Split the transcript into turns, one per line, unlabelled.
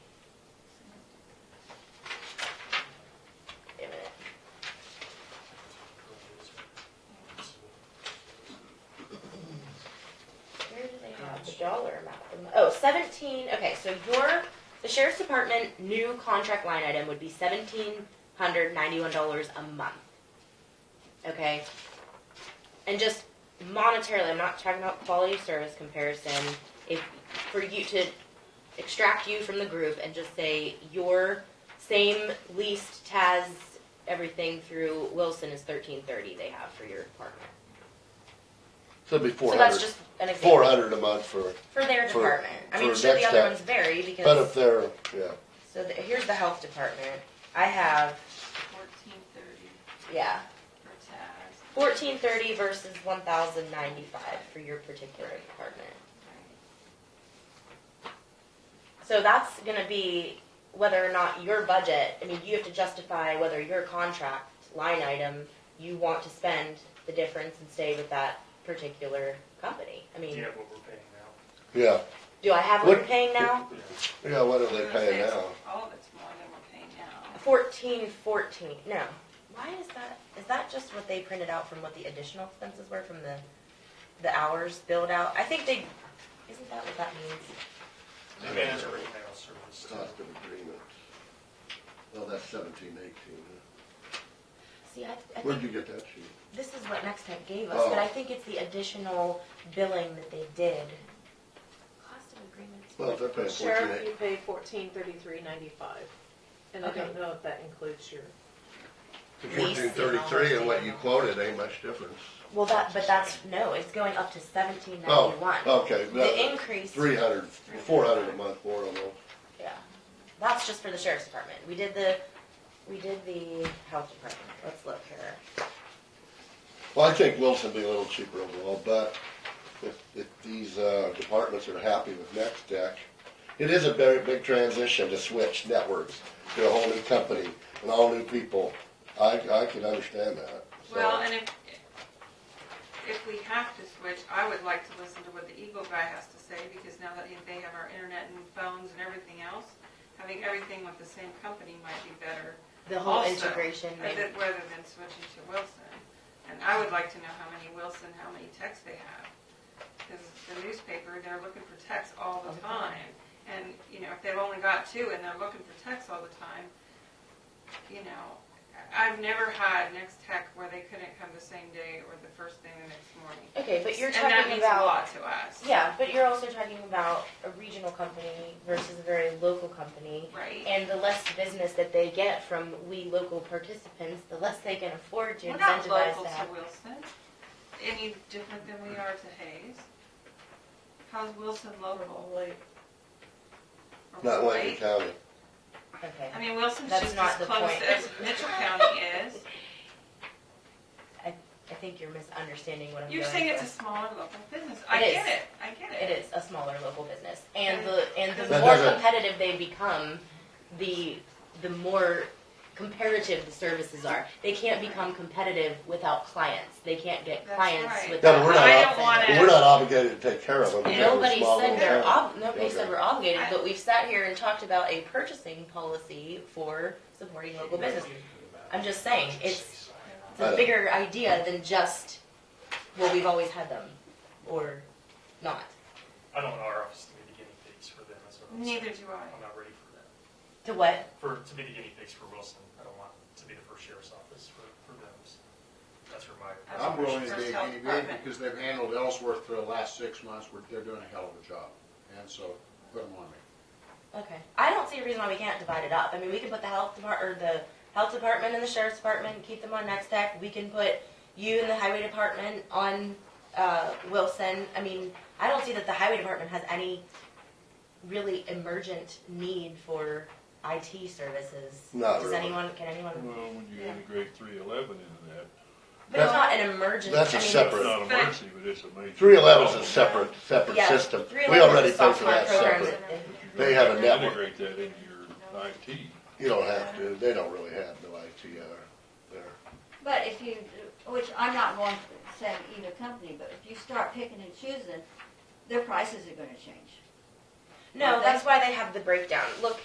oh, seventeen, okay, so your, the sheriff's department new contract line item would be seventeen hundred ninety-one dollars a month. Okay? And just monetarily, I'm not talking about quality of service comparison, if, for you to extract you from the group and just say your same leased TAS, everything through Wilson is thirteen thirty they have for your department.
So it'd be four
So that's
hundred,
just an example.
four hundred a month for,
For their
For-
department. I mean,
for
sure, the
next
other
step.
ones vary because.
but if they're, yeah,
So the, here's the health department. I have,
Fourteen thirty
yeah,
for Taz.
fourteen thirty versus one thousand ninety-five for your particular department. So that's gonna be whether or not your budget, I mean, you have to justify whether your contract line item, you want to spend the difference and stay with that particular company. I mean,
Yeah, what we're paying now.
yeah,
do I have what we're
What-
paying now?
Yeah.
yeah, what are they
I'm gonna say
paying
it's-
now?
All of it's more than we're paying now.
Fourteen fourteen, no. Why is that, is that just what they printed out from what the additional expenses were from the, the hours billed out? I think they, isn't that what that means?
And it's right now, so it's still-
Cost of agreement. Well, that's seventeen eighteen, huh?
See, I, I
Where'd you
think,
get that sheet?
this is what Next Tech gave us, but
Oh.
I think it's the additional billing that they did.
Cost of agreements.
Well, if they're paying fourteen
Sheriff, you
eight,
pay fourteen thirty-three ninety-five, and I don't know if that includes your,
lease
fourteen
and all
thirty-three and what
that.
you quoted ain't much difference.
Well, that, but that's, no, it's going up to seventeen
Oh,
ninety-one.
okay,
The
that,
increase,
three hundred, four hundred a month more on those.
yeah, that's just for the sheriff's department. We did the, we did the health department. Let's look here.
Well, I think Wilson be a little cheaper overall, but if, if these, uh, departments are happy with Next Tech, it is a very big transition to switch networks to a whole new company and all new people. I, I can understand that, so.
Well, and if, if we have to switch, I would like to listen to what the Eagle guy has to say, because now that they have our internet and phones and everything else, having everything with the same company might be better,
The whole
Also,
integration,
uh,
maybe.
that- rather than switching to Wilson. And I would like to know how many Wilson, how many texts they have, because the newspaper, they're looking for texts
All
all the
the time.
time. And, you know, if they've only got two and they're looking for texts all the time, you know, I've never had Next Tech where they couldn't come the same day or the first thing the next morning.
Okay, but you're
And that
talking
means a
about,
lot to us.
yeah, but you're also talking about a regional company versus a very local company.
Right?
And the less business that they get from we local participants, the less they can afford to
We're not
incentivize
local
that.
to Wilson, any different than we are to Hayes. How's Wilson local?
like,
Or
Not Lincoln
Lake?
County.
Okay,
I mean, Wilson's
That's
just
not
as
the
close
point.
as Mitchell County is.
I think you're misunderstanding what I'm
You're
going
saying it's a
for.
smaller local business. I
It
get
is.
it. I get it.
It is a smaller local business, and the, and the
But
more
doesn't-
competitive they become, the, the more comparative the services are. They can't become competitive without clients, they can't get
That's
clients
right.
without.
No, but we're not,
I
ob-
don't wanna-
we're not obligated to take care of them. because we're
Nobody
small
said
little
they're
town.
ob, nobody said
Okay.
we're obligated,
I-
but we've sat here and talked about a purchasing policy for supporting local business. I'm just saying, it's, it's
Uh,
a bigger idea than just, well, we've always had them, or not.
I don't want our office to be the guinea pigs for them, that's what I'm saying.
Neither do
I'm
I.
not ready for that.
To what?
For, to be the guinea pigs for Wilson, I don't want to be the first sheriff's office for, for them. so That's where my.
I'm
I'm willing to
First
be a
health
guinea pig
department.
E because they've handled Ellsworth for the last six months, where they're doing a hell of a job, and so put them on me.
Okay. I don't see a reason why we can't divide it up. I mean, we can put the health depart, or the health department and the sheriff's department, keep them on next tech. We can put you and the highway department on, uh, Wilson. I mean, I don't see that the highway department has any really emergent need for IT services.
Not
Does
really.
anyone, can anyone?
Well, when you
Yeah.
integrate three eleven into that,
But it's
That-
not an emergent.
that's a
I mean,
separate-
it's not a
But-
mercy, but it's a major.
Three eleven's a
problem.
separate, separate
Yeah,
system.
three
We
eleven
already
is
pay for
software
that
programs
separate.
that-
But
They have a
you
network.
Integrate that into your IT.
You don't have to, they don't really have no IT out there.
But if you, which I'm not one for saying either company, but if you start picking and choosing, their prices are gonna change.
No, that's why they have the breakdown. Look,